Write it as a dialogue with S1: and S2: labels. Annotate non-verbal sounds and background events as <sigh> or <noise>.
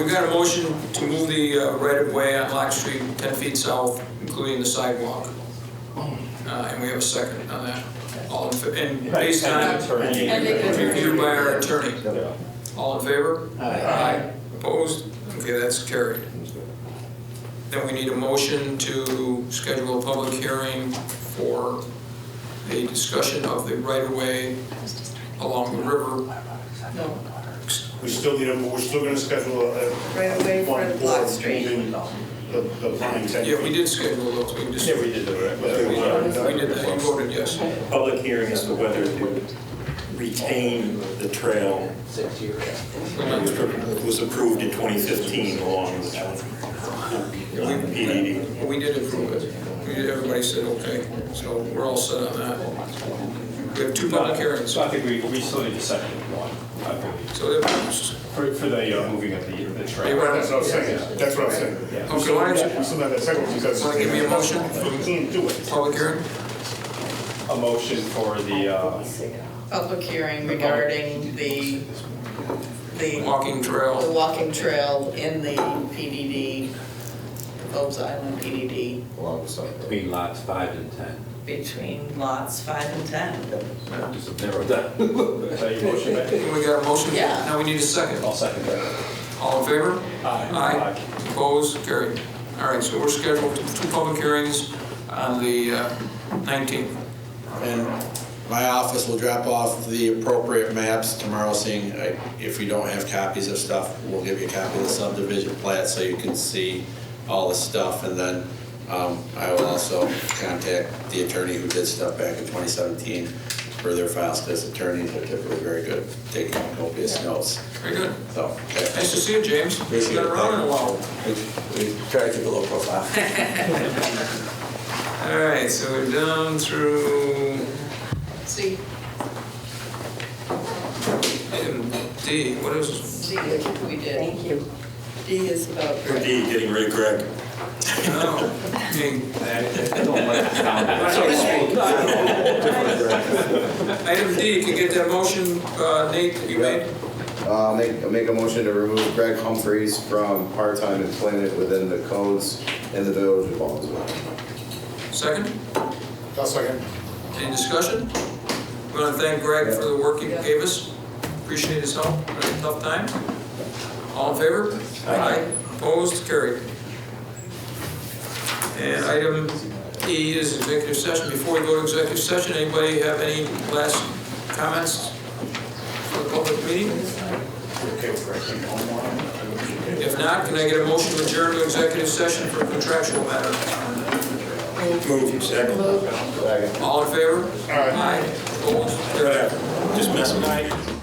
S1: got a motion to move the uh, right-of-way on Lock Street 10 feet south, including the sidewalk. Uh, And we have a second on that. All in, fa- and based on review by our attorney. All in favor? Aye.
S2: Uh,
S1: Opposed? Okay, that's carried. Then we need a motion to schedule a public hearing for a discussion of the right-of-way along the river.
S2: No,
S3: We still need, a- we're still gonna schedule a.
S2: Right away for
S3: one
S2: Lot
S3: board
S2: Street.
S3: meeting, The, the line ten.
S1: Yeah, we did schedule those, we just,
S4: Yeah,
S1: we
S4: we did the
S1: we did that, you voted yes.
S4: Public hearing as to whether to retain the trail was approved in 2015 along with PDD.
S1: We did approve it. We did, everybody said okay, so we're all set on that. We have two public hearings,
S5: So I think we, we still need a second one, I believe,
S1: so that,
S5: for, for the uh, moving of the, the trail.
S1: Hey, Ryan,
S3: That's what I was saying, that's what I was saying.
S1: Okay, why don't you-
S3: We still have that second one, because.
S1: Wanna give me a motion?
S3: We can't do it.
S1: public hearing?
S5: A motion for the, uh,
S2: public hearing regarding the, the,
S1: Walking
S2: the
S1: trail,
S2: walking trail in the PDD, Phobes Island PDD,
S6: Between lots five and ten.
S2: between lots five and 10.
S6: Just narrow that.
S5: is that your motion, Matt?
S1: we got a motion?
S2: Yeah.
S1: Now we need a second.
S5: I'll second that.
S1: All in favor? Aye. Opposed, carried. All right, so we're scheduled for two public hearings on the uh, 19th.
S7: And my office will drop off the appropriate maps tomorrow, seeing uh, if you don't have copies of stuff, we'll give you a copy of the subdivision plat so you can see all the stuff. And then um, I will also contact the attorney who did stuff back in 2017 for their files, because attorneys are typically very good at taking copious notes.
S1: Very good.
S7: So, okay.
S1: Nice to see you, James. You've
S7: Appreciate
S1: been
S7: it.
S1: around in a while.
S7: We we try to keep a low <laughs> profile.
S1: All right, so we're down through
S2: See,
S1: um, D, what is,
S2: see, we did. Thank you. D is oh, about.
S4: D, getting rid of Greg.
S1: oh, being
S6: I don't like the sound of it.
S1: Item D, can you get that motion, uh, Nate, that you made?
S8: Uh, make, make a motion to remove Greg Humphreys from part-time employment within the codes in the village of Baldwinsville.
S1: Second?
S3: I'll second.
S1: Any discussion? We want to thank Greg for the work he gave us. Appreciate his help in a tough time. All in favor? Aye. Opposed, carried. And item E is executive session. Before we go to executive session, anybody have any last comments for the public meeting? If not, can I get a motion to adjourn to executive session for contractual matter?
S4: Move, second.
S8: Second.
S1: All in favor? Aye. Opposed, carried.
S4: Just messing.